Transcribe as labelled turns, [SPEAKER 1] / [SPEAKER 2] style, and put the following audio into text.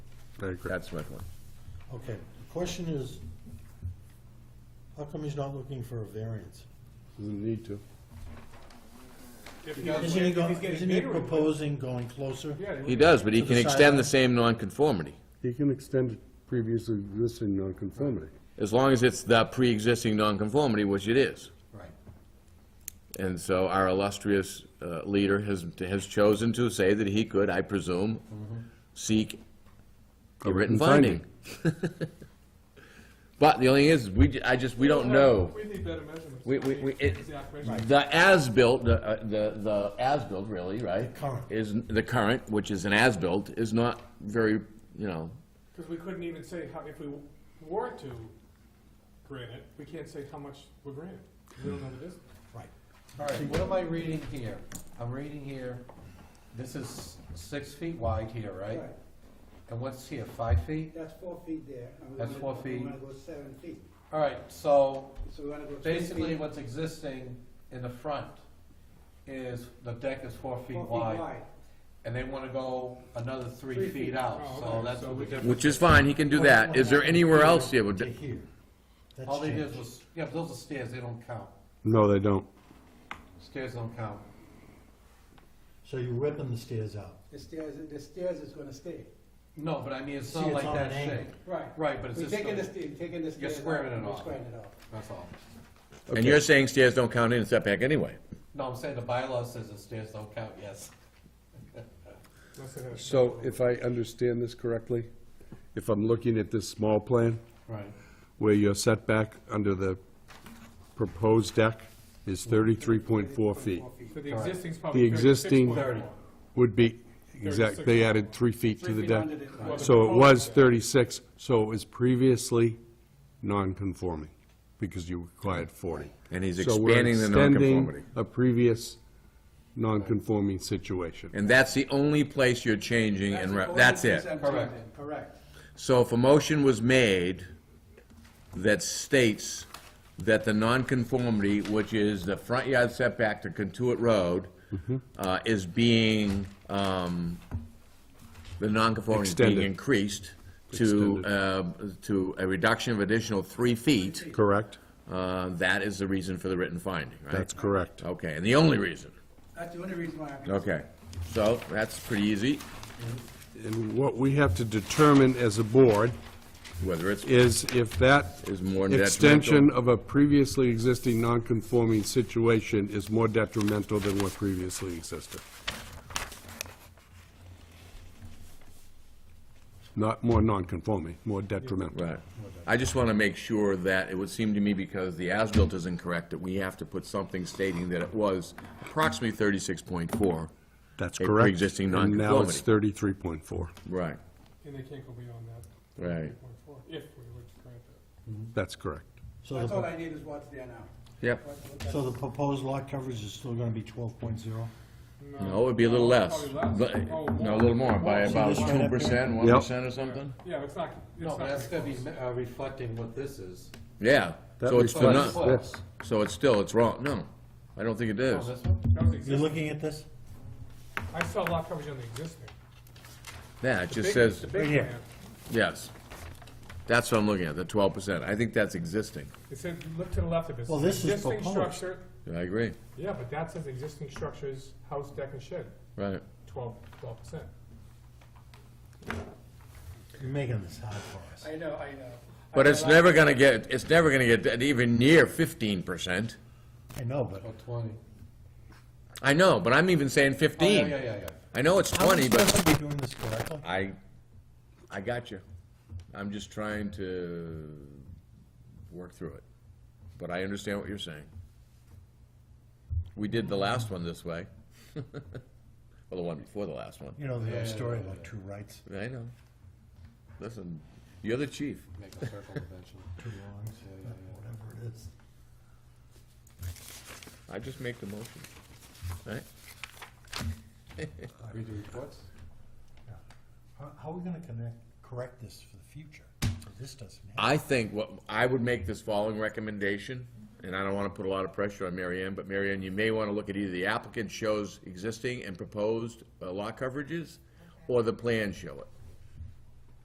[SPEAKER 1] I agree.
[SPEAKER 2] That's my point.
[SPEAKER 3] Okay, the question is, how come he's not looking for a variance?
[SPEAKER 4] Doesn't need to.
[SPEAKER 5] If he- if
[SPEAKER 3] Isn't he, go-
[SPEAKER 5] he's getting
[SPEAKER 3] isn't he
[SPEAKER 5] bigger, he would.
[SPEAKER 3] proposing going closer?
[SPEAKER 5] Yeah, he
[SPEAKER 2] He
[SPEAKER 5] would.
[SPEAKER 2] does, but he
[SPEAKER 3] To the
[SPEAKER 2] can
[SPEAKER 3] sideline.
[SPEAKER 2] extend the same nonconformity,
[SPEAKER 4] He can extend previously existing nonconformity.
[SPEAKER 2] as long as it's the pre-existing nonconformity, which it is.
[SPEAKER 3] Right.
[SPEAKER 2] And so our illustrious uh, leader has, has chosen to say that he could, I presume, seek a written
[SPEAKER 4] written finding.
[SPEAKER 2] finding. But the only thing is, we, ju- I just, we don't know.
[SPEAKER 5] We need better measurements.
[SPEAKER 2] We, we, we, it,
[SPEAKER 5] Exact measurements.
[SPEAKER 2] the as-built, the, uh, the, the as-built really, right?
[SPEAKER 3] The current.
[SPEAKER 2] Is, the current, which is an as-built, is not very, you know,
[SPEAKER 5] Because we couldn't even say how, if we were to grant it, we can't say how much we're granting. We don't know the distance.
[SPEAKER 3] Right.
[SPEAKER 6] All right, what am I reading here? I'm reading here, this is six feet wide here, right?
[SPEAKER 7] Right,
[SPEAKER 6] And what's here, five feet?
[SPEAKER 7] that's four feet there. and we
[SPEAKER 6] That's four
[SPEAKER 7] wanna-
[SPEAKER 6] feet.
[SPEAKER 7] We wanna go seven feet,
[SPEAKER 6] All right, so
[SPEAKER 7] so we wanna go two feet.
[SPEAKER 6] basically what's existing in the front is, the deck is four feet
[SPEAKER 7] four
[SPEAKER 6] wide, and they wanna go another three
[SPEAKER 7] Three
[SPEAKER 6] feet
[SPEAKER 7] feet.
[SPEAKER 6] out,
[SPEAKER 5] Oh,
[SPEAKER 6] so
[SPEAKER 5] okay,
[SPEAKER 6] that's
[SPEAKER 5] so
[SPEAKER 6] what
[SPEAKER 5] we
[SPEAKER 6] we did.
[SPEAKER 2] which is fine, he can do that. Is there anywhere else you would?
[SPEAKER 3] To here. That's
[SPEAKER 6] All they did
[SPEAKER 3] changed.
[SPEAKER 6] was, yeah, but those are stairs, they don't count.
[SPEAKER 4] No, they don't.
[SPEAKER 6] Stairs don't count.
[SPEAKER 3] So you're ripping the stairs out.
[SPEAKER 7] The stairs, the stairs is gonna stay,
[SPEAKER 6] No, but I mean, it's
[SPEAKER 3] See,
[SPEAKER 6] not
[SPEAKER 3] it's
[SPEAKER 6] like
[SPEAKER 3] on
[SPEAKER 6] that
[SPEAKER 3] an angle.
[SPEAKER 6] shape.
[SPEAKER 7] right.
[SPEAKER 6] Right, but it's
[SPEAKER 7] We're
[SPEAKER 6] just,
[SPEAKER 7] taking the
[SPEAKER 6] the-
[SPEAKER 7] stairs, taking the stairs. out,
[SPEAKER 6] squaring it
[SPEAKER 7] we're
[SPEAKER 6] off.
[SPEAKER 7] Squaring it off.
[SPEAKER 6] that's all.
[SPEAKER 2] And you're saying stairs don't count in setback anyway?
[SPEAKER 6] No, I'm saying the bylaw says the stairs don't count, yes.
[SPEAKER 5] Unless they have a
[SPEAKER 4] So if I understand this correctly, if I'm looking at this small plan,
[SPEAKER 6] Right.
[SPEAKER 4] where your setback under the proposed deck is thirty-three point four feet,
[SPEAKER 5] So the existing's probably
[SPEAKER 4] The
[SPEAKER 5] 36
[SPEAKER 4] existing-
[SPEAKER 5] point
[SPEAKER 6] Thirty.
[SPEAKER 5] four.
[SPEAKER 4] would be, exact, they added three feet to
[SPEAKER 7] Three
[SPEAKER 4] the
[SPEAKER 7] feet
[SPEAKER 4] deck.
[SPEAKER 7] under the-
[SPEAKER 5] Well, the
[SPEAKER 4] So it was
[SPEAKER 5] proposed-
[SPEAKER 4] thirty-six, so it was previously non-conforming, because you required forty.
[SPEAKER 2] And he's
[SPEAKER 4] So we're
[SPEAKER 2] expanding the
[SPEAKER 4] extending
[SPEAKER 2] nonconformity.
[SPEAKER 4] A previous non-conforming situation.
[SPEAKER 2] And that's the only place you're changing and, re- that's
[SPEAKER 7] That's
[SPEAKER 2] it.
[SPEAKER 7] the only piece I'm
[SPEAKER 6] Correct.
[SPEAKER 7] changing, Correct.
[SPEAKER 2] So if a motion was made that states that the nonconformity, which is the front yard setback to Kentuit Road,
[SPEAKER 4] Mm-hmm.
[SPEAKER 2] uh, is being, um, the nonconformity is being
[SPEAKER 4] Extended.
[SPEAKER 2] increased to, uh, to a reduction of additional three feet,
[SPEAKER 4] Correct?
[SPEAKER 2] uh, that is the reason for the written finding, right?
[SPEAKER 4] That's correct.
[SPEAKER 2] Okay, and the only reason.
[SPEAKER 7] That's the only reason why I'm.
[SPEAKER 2] Okay, so that's pretty easy,
[SPEAKER 4] And what we have to determine as a board
[SPEAKER 2] whether it's,
[SPEAKER 4] is if that
[SPEAKER 2] Is more detrimental.
[SPEAKER 4] extension of a previously existing non-conforming situation is more detrimental than what previously existed. Not more non-conforming, more detrimental.
[SPEAKER 2] right. I just want to make sure that, it would seem to me, because the as-built is incorrect, that we have to put something stating that it was approximately thirty-six point four.
[SPEAKER 4] That's
[SPEAKER 2] A
[SPEAKER 4] correct.
[SPEAKER 2] pre-existing
[SPEAKER 4] And now it's
[SPEAKER 2] nonconformity.
[SPEAKER 4] thirty-three point four.
[SPEAKER 2] Right.
[SPEAKER 5] And they can't go beyond that.
[SPEAKER 2] Right.
[SPEAKER 5] 3.4, If we would grant that.
[SPEAKER 4] That's correct.
[SPEAKER 3] So
[SPEAKER 7] That's all
[SPEAKER 3] the,
[SPEAKER 7] I need is what's there now.
[SPEAKER 2] Yep.
[SPEAKER 7] What- what that-
[SPEAKER 3] so the proposed lot coverage is still gonna be twelve point zero?
[SPEAKER 2] No, it'd be a little less,
[SPEAKER 5] Probably less.
[SPEAKER 2] But-
[SPEAKER 5] Oh,
[SPEAKER 2] no, a little more, by
[SPEAKER 3] See
[SPEAKER 2] about
[SPEAKER 3] this right
[SPEAKER 2] two
[SPEAKER 3] up
[SPEAKER 2] percent, one
[SPEAKER 4] Yep.
[SPEAKER 2] percent or something?
[SPEAKER 5] Yeah, it's not, it's
[SPEAKER 6] No,
[SPEAKER 5] not.
[SPEAKER 6] but that's
[SPEAKER 5] gonna
[SPEAKER 6] gonna be uh, reflecting what this is.
[SPEAKER 2] Yeah, so it's, the
[SPEAKER 6] reflects
[SPEAKER 2] nu-
[SPEAKER 6] what?
[SPEAKER 4] this.
[SPEAKER 2] so it's still, it's wrong, no, I don't think it
[SPEAKER 6] Oh,
[SPEAKER 2] is.
[SPEAKER 6] this one?
[SPEAKER 5] That was
[SPEAKER 3] You're
[SPEAKER 5] existing.
[SPEAKER 3] looking at this?
[SPEAKER 5] I saw lot coverage on the existing.
[SPEAKER 2] Yeah, it just
[SPEAKER 5] Big-
[SPEAKER 2] says,
[SPEAKER 5] the big
[SPEAKER 3] here.
[SPEAKER 5] plan,
[SPEAKER 2] yes. That's what I'm looking at, the twelve percent, I think that's existing,
[SPEAKER 5] It said, look to the left of it.
[SPEAKER 3] Well, this is
[SPEAKER 5] Existing
[SPEAKER 3] proposed.
[SPEAKER 5] structure,
[SPEAKER 2] I agree,
[SPEAKER 5] yeah, but that says existing structures, house, deck, and shed,
[SPEAKER 2] right.
[SPEAKER 5] twelve, twelve percent.
[SPEAKER 3] You're making this hard for us.
[SPEAKER 7] I know, I know.
[SPEAKER 2] But
[SPEAKER 7] I
[SPEAKER 2] it's
[SPEAKER 7] know
[SPEAKER 2] never gonna get, it's never gonna get that even near fifteen percent.
[SPEAKER 3] I know, but
[SPEAKER 6] Or Oh, twenty?
[SPEAKER 2] I know, but I'm even saying
[SPEAKER 6] Oh, yeah, yeah,
[SPEAKER 2] fifteen.
[SPEAKER 6] yeah, yeah.
[SPEAKER 2] I know it's
[SPEAKER 3] How are we
[SPEAKER 2] twenty, but
[SPEAKER 3] supposed to be doing this correctly?
[SPEAKER 2] I, I got you. I'm just trying to work through it. But I understand what you're saying. We did the last one this way. Well, the one before the last one.
[SPEAKER 3] You know, the
[SPEAKER 6] Yeah,
[SPEAKER 3] old story
[SPEAKER 6] yeah,
[SPEAKER 3] about two rights,
[SPEAKER 2] I know. Listen, you're the chief.
[SPEAKER 6] Make a circle eventually.
[SPEAKER 3] two wrongs,
[SPEAKER 6] Yeah, yeah, yeah.
[SPEAKER 3] whatever it is.
[SPEAKER 2] I just make the motion. Right?
[SPEAKER 6] Read the reports?
[SPEAKER 3] How- How are we gonna connect, correct this for the future? So This doesn't happen.
[SPEAKER 2] I think what, I would make this following recommendation, and I don't want to put a lot of pressure on Mary Ann, but Mary Ann, you may want to look at either the applicant shows existing and proposed uh, lot coverages, or the plan show it.